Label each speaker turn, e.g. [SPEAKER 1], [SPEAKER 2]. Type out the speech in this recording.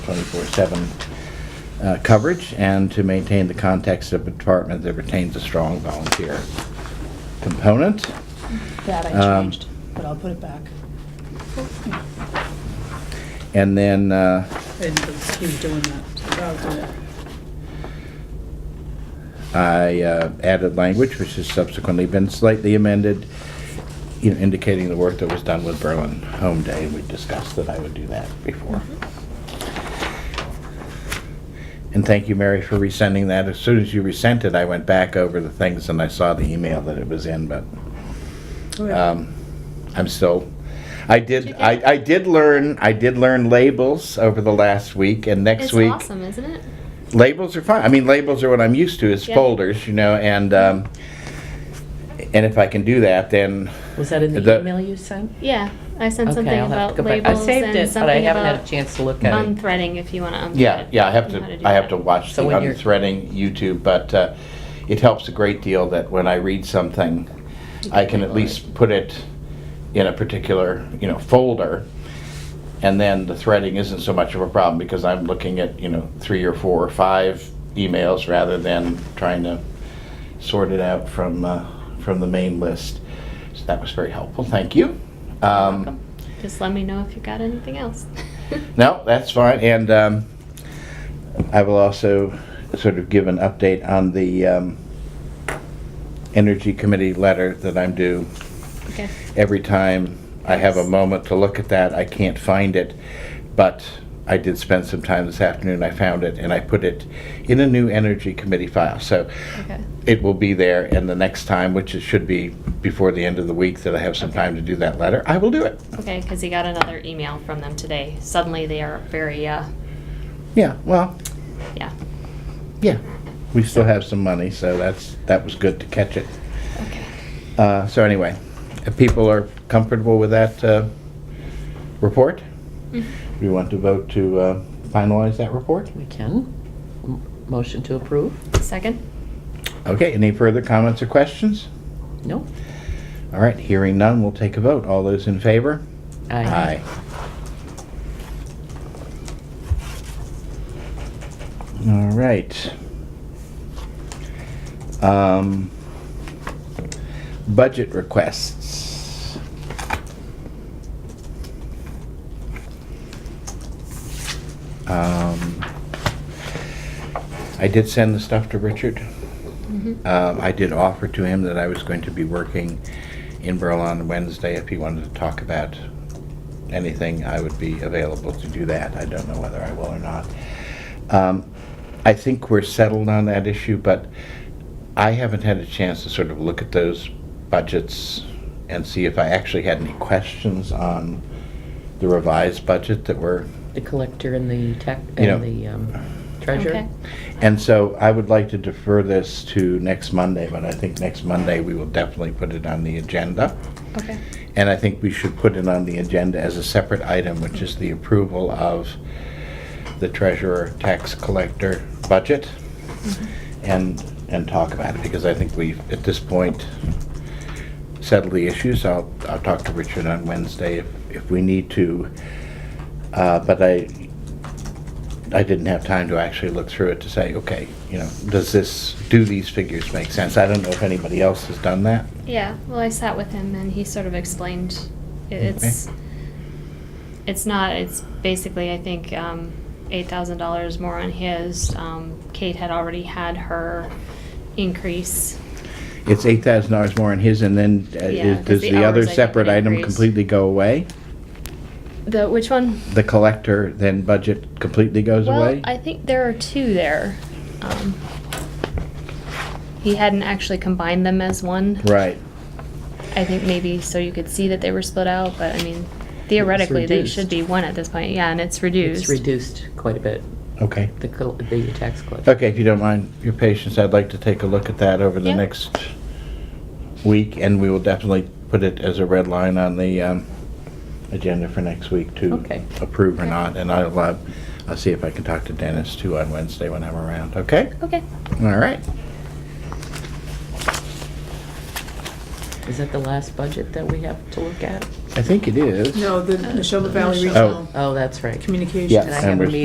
[SPEAKER 1] 24/7 uh, coverage and to maintain the context of a department that retains a strong volunteer component.
[SPEAKER 2] That I
[SPEAKER 1] Um,
[SPEAKER 2] changed, but I'll put it back.
[SPEAKER 1] And then, uh,
[SPEAKER 2] And he was doing that, so I'll do it.
[SPEAKER 1] I uh, added language, which has subsequently been slightly amended, you know, indicating the work that was done with Berlin Home Day. We discussed that I would do that before. And thank you, Mary, for resending that. As soon as you resent it, I went back over the things and I saw the email that it was in, but
[SPEAKER 3] Oh,
[SPEAKER 2] Uh,
[SPEAKER 1] um, I'm still, I did, I I did learn, I did learn labels over the last week and next
[SPEAKER 4] it's
[SPEAKER 1] week
[SPEAKER 4] awesome, isn't it?
[SPEAKER 1] labels are fine. I mean, labels are what I'm used to is
[SPEAKER 4] Yeah.
[SPEAKER 1] folders, you know, and um, and if I can do that, then
[SPEAKER 3] Was that in the
[SPEAKER 1] The-
[SPEAKER 3] email you sent?
[SPEAKER 4] Yeah, I sent
[SPEAKER 3] Okay,
[SPEAKER 4] something
[SPEAKER 3] I'll have to
[SPEAKER 4] about
[SPEAKER 3] go back. I
[SPEAKER 4] labels
[SPEAKER 3] saved
[SPEAKER 4] and
[SPEAKER 3] it, but I
[SPEAKER 4] something
[SPEAKER 3] haven't had a
[SPEAKER 4] about
[SPEAKER 3] chance to look at it.
[SPEAKER 4] unthreading if you want to unthread.
[SPEAKER 1] yeah, yeah, I have
[SPEAKER 4] and how
[SPEAKER 1] to
[SPEAKER 4] do
[SPEAKER 1] I have
[SPEAKER 4] that.
[SPEAKER 1] to watch
[SPEAKER 3] So
[SPEAKER 1] the
[SPEAKER 3] when you're-
[SPEAKER 1] unthreading YouTube, but uh, it helps a great deal that when I read something, I can at least put it in a particular you know folder. And then the threading isn't so much of a problem because I'm looking at, you know, three or four or five emails rather than trying to sorted out from, uh, from the main list. So that was very helpful, thank you. Um,
[SPEAKER 4] Just let me know if you got anything else.
[SPEAKER 1] No, that's fine, and um, I will also sort of give an update on the um, Energy Committee letter that I'm due.
[SPEAKER 4] Okay.
[SPEAKER 1] Every time I have a moment to look at that, I can't find it, but I did spend some time this afternoon, I found it, and I put it in a new Energy Committee file. So
[SPEAKER 4] Okay.
[SPEAKER 1] it will be there, and the next time, which it should be before the end of the week, that I have some
[SPEAKER 4] Okay.
[SPEAKER 1] time to do that letter, I will do it.
[SPEAKER 4] Okay, because he got another email from them today. Suddenly they are very, uh,
[SPEAKER 1] Yeah, well,
[SPEAKER 4] yeah.
[SPEAKER 1] yeah, we still have some money, so that's, that was good to catch it.
[SPEAKER 4] Okay.
[SPEAKER 1] Uh, so anyway, if people are comfortable with that, uh, report,
[SPEAKER 4] Mhm.
[SPEAKER 1] we want to vote to, uh, finalize that report?
[SPEAKER 3] We can. M- Motion to approve?
[SPEAKER 4] Second?
[SPEAKER 1] Okay, any further comments or questions?
[SPEAKER 3] No?
[SPEAKER 1] All right, hearing none, we'll take a vote. All those in favor?
[SPEAKER 3] Aye.
[SPEAKER 1] Aye. All right. Um, budget requests. Um, I did send the stuff to Richard.
[SPEAKER 4] Mhm.
[SPEAKER 1] Um, I did offer to him that I was going to be working in Berlin on Wednesday. If he wanted to talk about anything, I would be available to do that. I don't know whether I will or not. Um, I think we're settled on that issue, but I haven't had a chance to sort of look at those budgets and see if I actually had any questions on the revised budget that were
[SPEAKER 3] The collector and the tech,
[SPEAKER 1] You know-
[SPEAKER 3] and the um, treasurer?
[SPEAKER 4] Okay.
[SPEAKER 1] And so I would like to defer this to next Monday, but I think next Monday we will definitely put it on the agenda.
[SPEAKER 4] Okay.
[SPEAKER 1] And I think we should put it on the agenda as a separate item, which is the approval of the treasurer, tax collector budget.
[SPEAKER 4] Mm-hmm.
[SPEAKER 1] And, and talk about it, because I think we've, at this point, settled the issues. I'll, I'll talk to Richard on Wednesday if, if we need to. Uh, but I, I didn't have time to actually look through it to say, okay, you know, does this, do these figures make sense? I don't know if anybody else has done that.
[SPEAKER 4] Yeah, well, I sat with him and he sort of explained i- it's it's not. It's basically I think um, eight thousand dollars more on his. Um, Kate had already had her increase.
[SPEAKER 1] It's eight thousand dollars more in his, and then uh,
[SPEAKER 4] Yeah,
[SPEAKER 1] is-
[SPEAKER 4] 'cause
[SPEAKER 1] does
[SPEAKER 4] the
[SPEAKER 1] the other
[SPEAKER 4] hours, I think,
[SPEAKER 1] separate
[SPEAKER 4] would
[SPEAKER 1] item
[SPEAKER 4] increase.
[SPEAKER 1] completely go away?
[SPEAKER 4] The which one?
[SPEAKER 1] The collector, then budget completely goes
[SPEAKER 4] well,
[SPEAKER 1] away?
[SPEAKER 4] I think there are two there. Um, he hadn't actually combined them as one.
[SPEAKER 1] Right.
[SPEAKER 4] I think maybe so you could see that they were split out, but I mean, theoretically they
[SPEAKER 3] reduced.
[SPEAKER 4] should be one at this point. Yeah, and it's reduced.
[SPEAKER 3] It's reduced quite a bit,
[SPEAKER 1] Okay.
[SPEAKER 3] the col- the tax collector.
[SPEAKER 1] Okay, if you don't mind your patience, I'd like to take a look at that over the
[SPEAKER 4] Yeah.
[SPEAKER 1] next week, and we will definitely put it as a red line on the um, agenda for next week to
[SPEAKER 3] Okay.
[SPEAKER 1] approve or
[SPEAKER 4] Okay.
[SPEAKER 1] not, and I'll, uh, I'll see if I can talk to Dennis too on Wednesday when I'm around, okay?
[SPEAKER 4] Okay.
[SPEAKER 1] All right.
[SPEAKER 3] Is that the last budget that we have to look at?
[SPEAKER 1] I think it is.
[SPEAKER 2] No, the Neshoba Valley
[SPEAKER 1] Oh.
[SPEAKER 2] Regional
[SPEAKER 3] Oh, that's right.
[SPEAKER 2] Communications.
[SPEAKER 1] Yeah.
[SPEAKER 3] And I have a
[SPEAKER 1] Amber's-